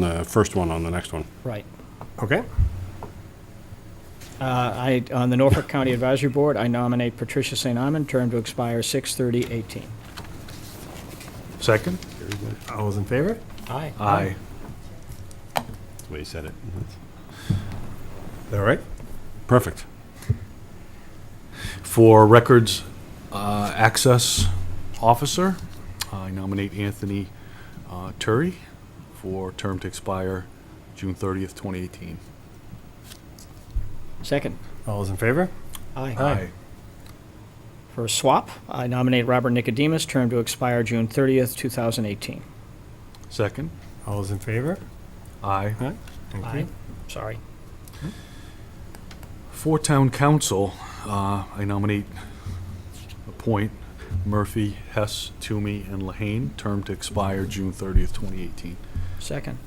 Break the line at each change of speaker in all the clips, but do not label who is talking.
the first one on the next one.
Right.
Okay.
Uh, I, on the Norfolk County Advisory Board, I nominate Patricia St. Amon, term to expire 6/30/18.
Second?
All those in favor?
Aye.
That's the way you said it.
All right.
Mm-hmm. Perfect.
For records uh, access officer, I nominate Anthony uh, Turi for term to expire June 30th, 2018.
Second.
All those in favor?
For swap, I nominate Robert Nicodemus, term to expire June 30th, 2018.
Second?
All those in favor?
Aye.
Thank you.
Sorry.
For town council, uh, I nominate, appoint Murphy, Hess, Toomey, and Lahane, term to expire June 30th, 2018.
Second.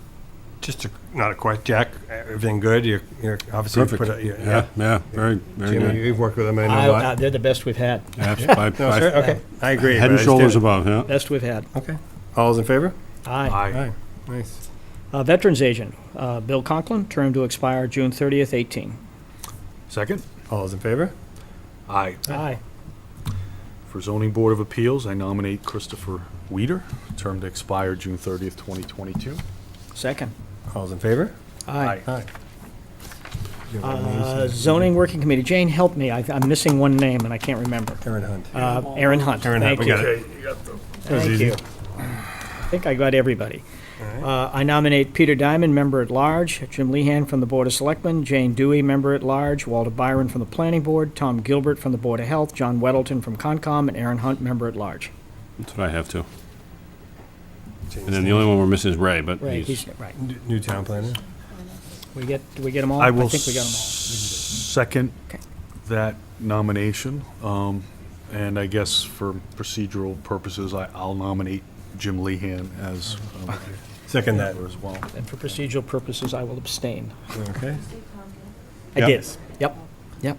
Just a, not a question, Jack. Everything good? You're, you're obviously
Perfect.
put. A, you-
Yeah, yeah, very, very
Jimmy,
good.
you've worked with them. I know
I-
a lot.
uh, They're the best we've had.
Abs- by-
no,
by-
sir. Okay. I agree.
Head
but I
and
just
shoulders
didn't-
above, yeah.
Best we've had.
Okay. All those in favor?
Aye.
Nice.
Uh, Veterans Agent, uh, Bill Conklin, term to expire June 30th, 18.
Second?
All those in favor?
Aye.
Aye.
For zoning board of appeals, I nominate Christopher Weider, term to expire June 30th, 2022.
Second.
All those in favor?
Aye.
Aye. You have
Uh,
names?
Zoning Working Committee, Jane, help me, I- I'm missing one name and I can't remember.
Aaron Hunt.
Uh, Aaron Hunt.
Aaron
Thank
Hunt, we
you.
got it. was
Thank
easy.
you. I think I got everybody. Uh, I nominate Peter Diamond, Member at Large, Jim Lehan from the Board of Selectmen, Jane Dewey, Member at Large, Walter Byron from the Planning Board, Tom Gilbert from the Board of Health, John Weddleton from Concom, and Aaron Hunt, Member at Large.
That's what I have too.
James
And then the only one we're missing is Ray, but
Right,
he's,
he's, right.
N- New town planner.
We get, do we get them all?
I will
think we got them all.
second
Okay.
that nomination. Um, And I guess for procedural purposes, I- I'll nominate Jim Lehan as um,
Second that.
member as well.
And for procedural purposes, I will abstain.
Okay.
I
Yep.
did. Yep, yep.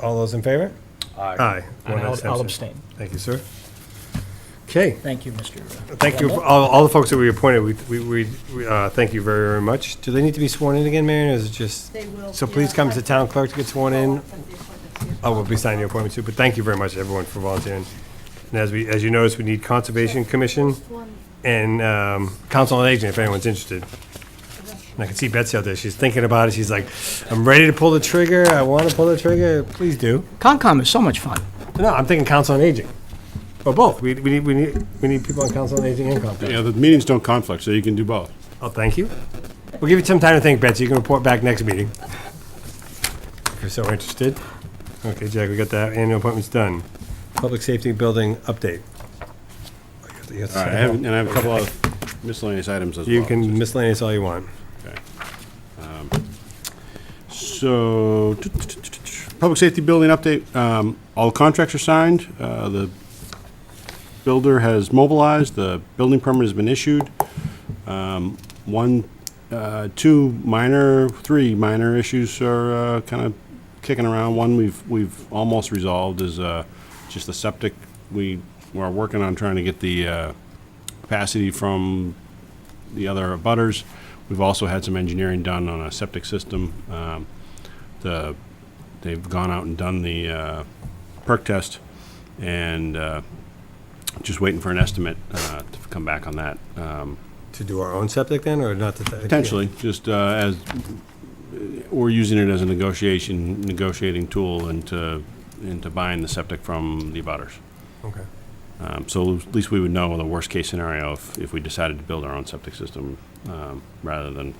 All those in favor? Aye.
And
One
I'll- I'll
abstention.
abstain.
Thank you, sir. Okay.
Thank you, uh, Mr.
Thank you, for all, all the folks that we appointed, we, we- we, we, uh, thank you very, very much. Do they need to be sworn in again, Marion, or is it just?
They will,
So please
yeah.
come to the town clerk to get sworn in. I will be signing your appointment too, but thank you very much, everyone, for volunteering. And as we, as you notice, we need Conservation Commission and, um, Council on Aging, if anyone's interested. And I can see Betsy out there, she's thinking about it, she's like, I'm ready to pull the trigger, I wanna pull the trigger, please do.
Concom is so much fun.
No, I'm thinking Council on Aging, or both, we, we need, we need, we need people on Council on Aging and Conservation.
yeah, the meetings don't conflict, so you can do both.
Oh, thank you. We'll give you some time to think, Betsy. You can report back next meeting. If you're so interested. Okay, Jack, we got that. Annual appointments done. Public safety building update.
All right, I have, and I have a couple of miscellaneous items as well.
You can miscellaneous all you want.
Um, So, public safety building update, um, all contracts are signed, uh, the builder has mobilized, the building permit has been issued. Um, one, uh, two minor, three minor issues are, uh, kind of kicking around. One we've, we've almost resolved is, uh, just the septic. We, we're working on trying to get the, uh, capacity from the other butters. We've also had some engineering done on a septic system. Um, the, they've gone out and done the uh, perk test and uh, just waiting for an estimate uh, to come back on that. Um,
To do our own septic then, or not? to-
potentially, just uh, as we're using it as a negotiation negotiating tool into into buying the septic from the abutters.
Okay.
Um, so at least we would know the worst case scenario if, if we decided to build our own septic system um, rather than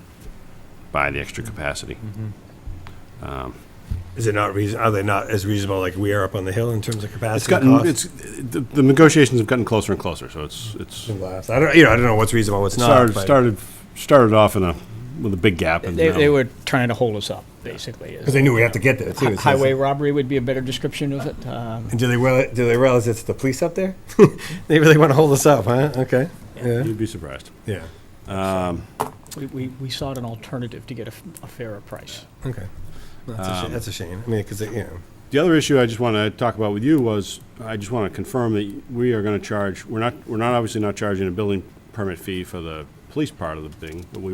buy the extra capacity.
Mm-hmm.
Is it not reason, are they not as reasonable, like we are up on the hill in terms of
It's
capacity and
gotten
cost?
it's the, the negotiations have gotten closer and closer. So it's it's
Some laughs. I don't, you know, I don't know what's reasonable, what's not.
started
but-
started started off in a with a big gap. And
They,
now-
they were trying to hold us up, basically. is-
Because they knew we have to get there too.
Hi-
so-
Highway robbery would be a better description of it. Um,
And do they, reali- do they realize it's the police up there? They really want to hold us up, huh? Okay. Yeah.
You'd be surprised.
Yeah.
we- We we sought an alternative to get a f- a fairer price.
Okay. That's, a shame. that's a shame. I mean, because, you know,
The other issue I just want to talk about with you was, I just want to confirm that we are going to charge, we're not, we're not obviously not charging a building permit fee for the police part of the thing, but we